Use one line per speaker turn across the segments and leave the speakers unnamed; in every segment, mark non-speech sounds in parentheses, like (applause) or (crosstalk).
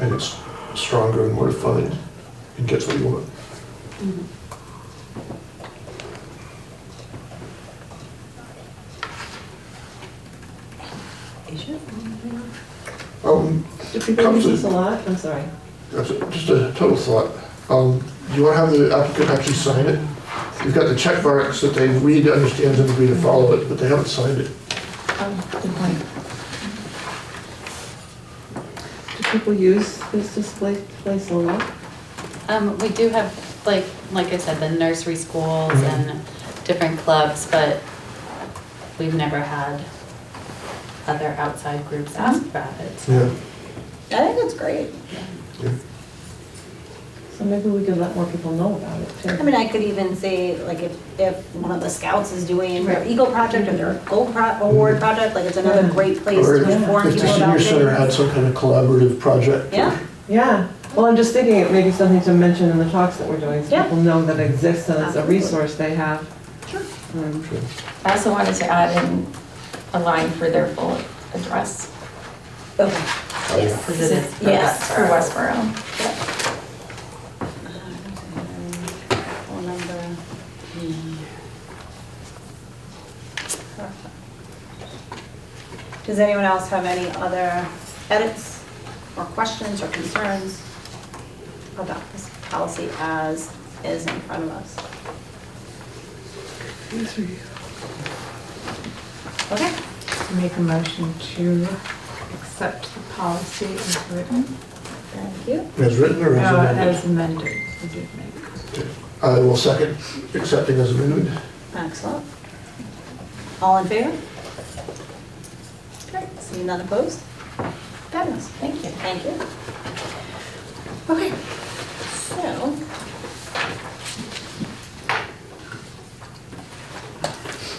and it's stronger and more defined and gets what you want.
Is your phone ringing?
Um,
Do people
Comes
use
with-
this a lot? I'm sorry.
that's a- just a total thought. Um, do you want to have the applicant actually sign it? You've got the check marks that they read, understand, and agree to follow it, but they haven't signed it.
Oh, good point. Do people use this display place a lot?
Um, we do have, like, like I said, the nursery schools
Mhm.
and different clubs, but we've never had other outside groups ask about it. so-
Yeah.
I think that's great.
So maybe we can let more people know about it too.
I mean, I could even say, like, if, if one of the scouts is doing their
Right. Mm.
Eagle Project or their Gold Pro- Award Project, like, it's another
Yeah.
great place
Or
to
if
inform
if the
people about
senior center had
things.
some kind of collaborative project.
Yeah,
Yeah, well, I'm just thinking it may be something to mention in the talks that we're doing, so
Yeah.
people know that it exists and it's a
Absolutely.
resource they have.
Sure.
Um,
I also wanted to add in a line for their full address.
okay.
Oh, yeah.
Because it is. for
Yes.
Westboro.
For Westboro.
Uh, Phone number. Does anyone else have any other edits or questions or concerns about this policy as is in front of us? Okay,
Make a motion to accept the policy as written,
thank you.
As written or as
uh,
amended?
as amended, forgive me.
I will second accepting as amended.
Excellent. All in favor? Great, see none opposed? Fabulous, thank you. Thank you. Okay, so.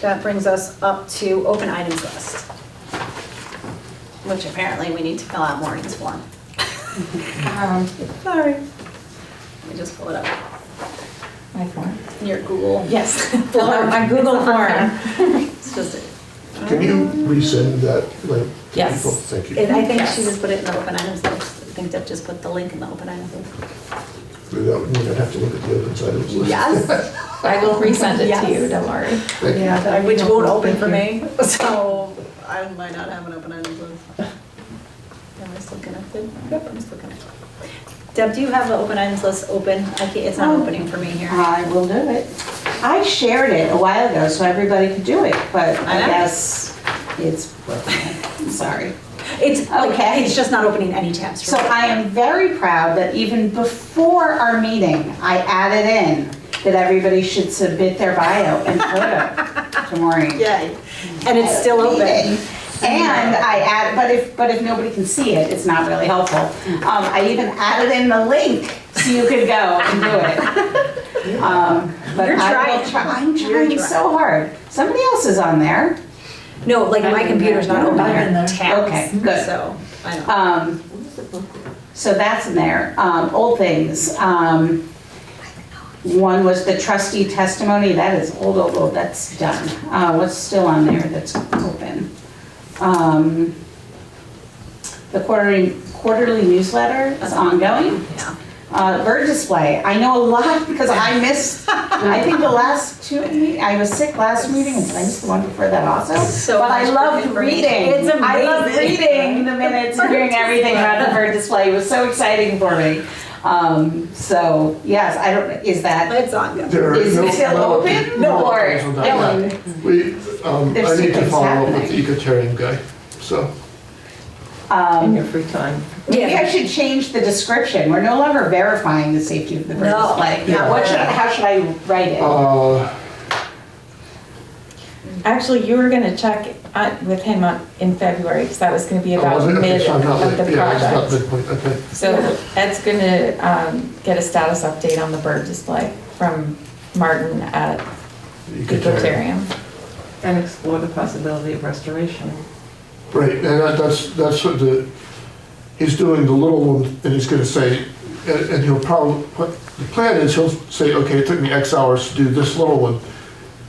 That brings us up to open items list, which apparently we need to fill out Maureen's form.
Um,
(laughs) Sorry. Let me just pull it up.
My form.
Your Google.
Yes, fill out my Google form.
It's (laughs) just,
Can you
Um.
resend that link? to
Yes.
people? Thank you.
and I think she
Yes.
just put it in the open items list. I think Deb just put the link in the open items list.
That would mean I'd have to look at the other side of the list.
Yes,
I will resend it to you,
Yes.
don't worry.
Thank you.
Yeah, that would be
which won't
helpful,
open for
thank
me, (laughs) so I might not have an open items list. Am I still connected? Yep, I'm still connected. Deb, do you have the open items list open? I can't, it's not opening for me here.
I will do it. I shared it a while ago so everybody could do it, but
I
I
know.
guess it's, I'm (laughs) sorry.
It's, okay.
Okay.
it's just not opening any tabs for
So
me.
I am very proud that even before our meeting, I added in that everybody should submit their bio and photo to Maureen.
Yay, and it's still open.
And I add, but if, but if nobody can see it, it's not really helpful.
Mm-hmm.
Um, I even added in the link so you could go and do
(laughs)
it. Um, But
You're
I will
trying.
try, I'm
You're
trying
trying.
so hard. Somebody else is on there.
No, like my computer's not
I've
opening
been there. Okay,
tabs,
good.
so I don't.
Um, So that's in there. Um, Old things. Um, One was the trustee testimony. That is old, old, old. That's done. Uh, What's still on there that's open? Um, The quarterly quarterly newsletter is ongoing.
Yeah.
Uh, Bird display. I know a lot because I missed, I think the last two, me- I was sick last meeting and I missed the one before that also.
So
But I
much
loved
bird information.
reading.
It's
I loved
amazing.
reading the
(laughs)
minutes and hearing everything about the bird display. It was so exciting for me. Um, So, yes, I don't, is that,
It's on.
There are
is
no-
it still
no-
open?
no
Or-
plans on that
No.
yet. We, um, I
There's
need to
secrets
follow up with the
happening.
egalitarian guy, so.
you. In
Um,
your free time.
Maybe I should change the description. We're no longer verifying the safety of the bird
No.
display.
Yeah.
What should, I- how should I write it?
Uh,
Actually, you were gonna check uh, with him on- in February, because that was gonna be
I
about
Oh, wasn't- okay,
mid
so I'm not
of
like-
the
Yeah, it's not
project.
midpoint, okay.
So Ed's gonna um, get a status update on the bird display from Martin at Ecotarium.
And explore the possibility of restoration.
Right, and that- that's, that's what the, he's doing the little one, and he's gonna say, and and he'll probably, what the plan is, he'll say, okay, it took me X hours to do this little one.